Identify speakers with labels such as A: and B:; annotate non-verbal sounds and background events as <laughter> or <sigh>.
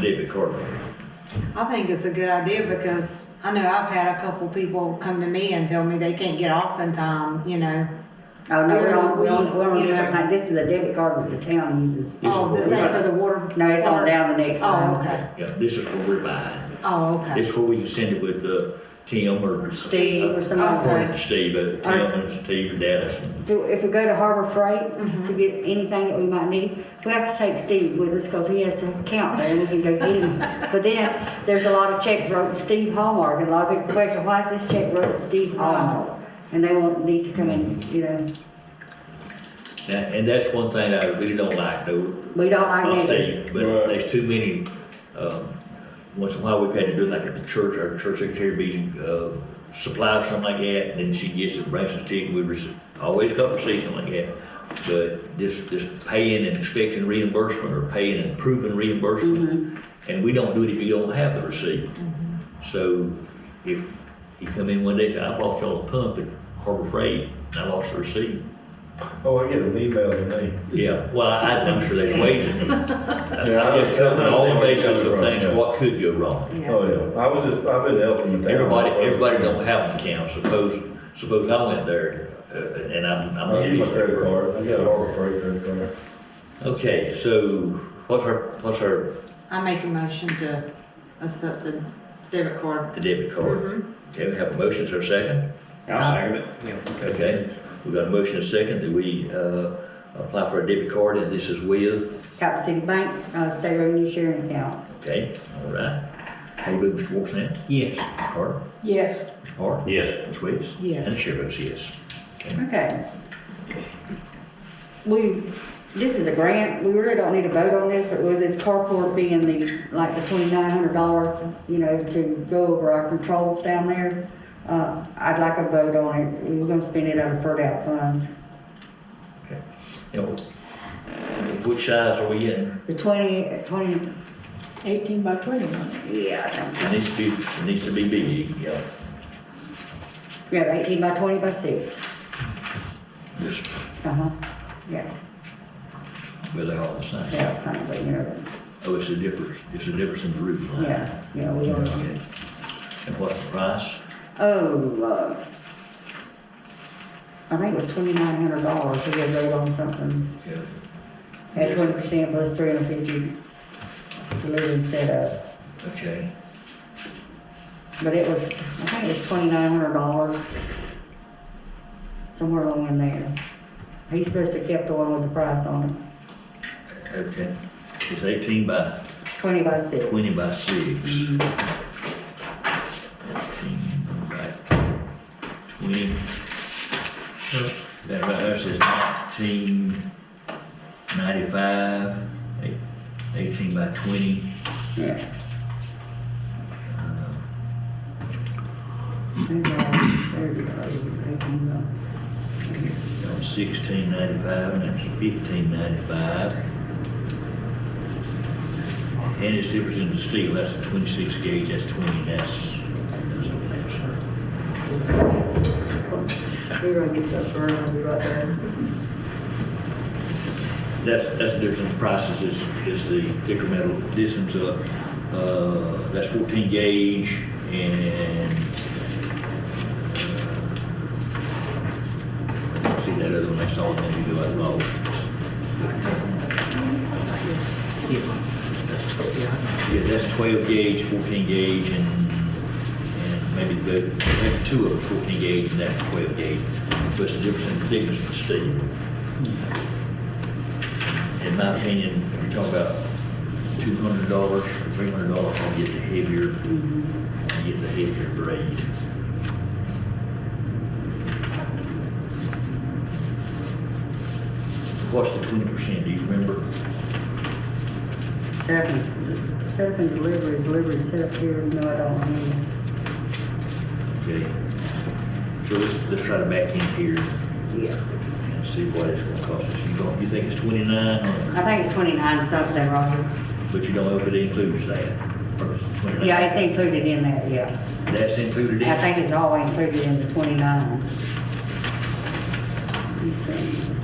A: debit card reader.
B: I think it's a good idea because I know I've had a couple people come to me and tell me they can't get off in time, you know.
C: Oh, no, we're on,
B: We-
C: we're on, we're on a
B: you
C: different
B: know.
C: thing. This is a debit card that the town uses.
A: Yes,
B: Oh, this ain't for the water.
C: No, it's on down the next line.
B: Oh, okay.
A: Yeah, this is where we're buying.
B: Oh, okay.
A: This is where we can send it with, uh, Tim or.
C: Steve or
A: Uh,
C: somebody.
A: According to Steve, uh, Tim and Steve and Dallas.
C: Do, if we go to Harbor
B: Mm-hmm.
C: Freight to get anything that we might need, we have to take Steve with us because he has to count there and we can go get him.
B: <laughs>
C: But then, there's a lot of checks wrote to Steve Hallmark, and a lot of people question, why is this check wrote to Steve
B: Uh-huh.
C: Hallmark? And they won't need to come in, you know,
A: And, and that's one thing I really don't like though,
C: we don't like
A: I'll
C: that.
A: say, but
D: Right.
A: there's too many, um, once in a while, we've had to do it like at the church, our church secretary be, uh, supplied something like that, and then she gets it, brings us ticket, we rece- always come receive something like that. But this, this paying and expecting reimbursement, or paying and proving reimbursement, and we don't do it if you don't have the receipt. So if you come in one day, and say, I bought y'all a pump at Harbor Freight, and I lost the receipt,
D: Oh, I get an email today.
A: yeah, well, I, I'm sure there's ways in it.
D: Yeah,
A: I'm just covering all the bases of things,
D: yeah.
A: what could go wrong.
B: Yeah.
D: Oh, yeah, I was just, I've been helping with that.
A: Everybody, everybody don't have an account, suppose, suppose I went there, uh, and I'm, I'm.
D: I use my credit card, I got a Harbor Freight credit card.
A: Okay, so what's our, what's our
B: I make a motion to accept the debit card.
A: debit card? Okay, we have a motion, is there a second?
E: I'll second it.
A: Okay, we got a motion, and a second, that we, uh, apply for a debit card, and this is with,
C: Cap City Bank, uh, state revenue sharing account.
A: okay, all right. How you vote, Mr. Wolf, now?
E: Yes.
A: Mr. Carter?
B: Yes.
A: Mr. Carter?
E: Yes.
A: Ms. Wicks?
B: Yes.
A: And the chair votes yes.
C: Okay. We, this is a grant, we really don't need to vote on this, but with this carport being the, like the twenty-nine hundred dollars, you know, to go over our controls down there, uh, I'd like a vote on it, we're gonna spend it out of deferred out funds.
A: Okay. Now, which size are we in?
C: The twenty, twenty,
F: Eighteen by twenty, wasn't it?
C: yeah, I think so.
A: It needs to be, it needs to be big, yeah.
C: yeah, eighteen by twenty by six,
A: Just,
C: uh-huh, yeah,
A: well, they're all the same.
C: yeah, fine, but you know,
A: Oh, it's a difference, it's a difference in the roof line.
C: yeah, yeah, we don't.
A: Okay. And what's the price?
C: Oh, uh, I think it was twenty-nine hundred dollars, we had voted on something,
A: Yeah.
C: at twenty percent plus three hundred fifty delivered and set up,
A: Okay,
C: but it was, I think it was twenty-nine hundred dollars. Somewhere along in there. He's supposed to have kept the one with the price on
A: okay. It's eighteen by
C: it, twenty by six.
A: twenty by six. Eighteen by twenty. That right there says nineteen ninety-five, eight- eighteen by twenty.
C: Yeah. There's our- there we go, eighteen dollars.
A: Sixteen ninety-five, and that's fifteen ninety-five. And it's different in the steel, that's a twenty-six gauge, that's twenty, that's, that's a flash.
C: We're gonna get some burn, I'll be right there.
A: That's, that's the difference in the prices is, is the thicker metal, this one's a, uh, that's fourteen gauge and uh, see that other one, I saw it, and you go out Yeah, that's 12 gauge, 14 gauge, and, and maybe the, maybe two of them 14 gauge, and that's 12 gauge. What's the difference in thickness of steel? In my opinion, you're talking about $200, or $300, I'll get the heavier, I'll get the heavier braid. What's the 20%, do you remember?
C: Set up and, set up and delivery, delivery set up here, no, I don't need it.
A: Okay. So let's, let's try to back in here.
C: Yeah.
A: and see what it's gonna cost us. You don't, you think it's twenty-nine, or-
C: I think it's twenty-nine something, Roger.
A: but you don't know if it includes that, or it's twenty-nine?
C: Yeah, it's included in that, yeah.
A: That's included in
C: I
A: it?
C: think it's all included in the twenty-nine. Okay.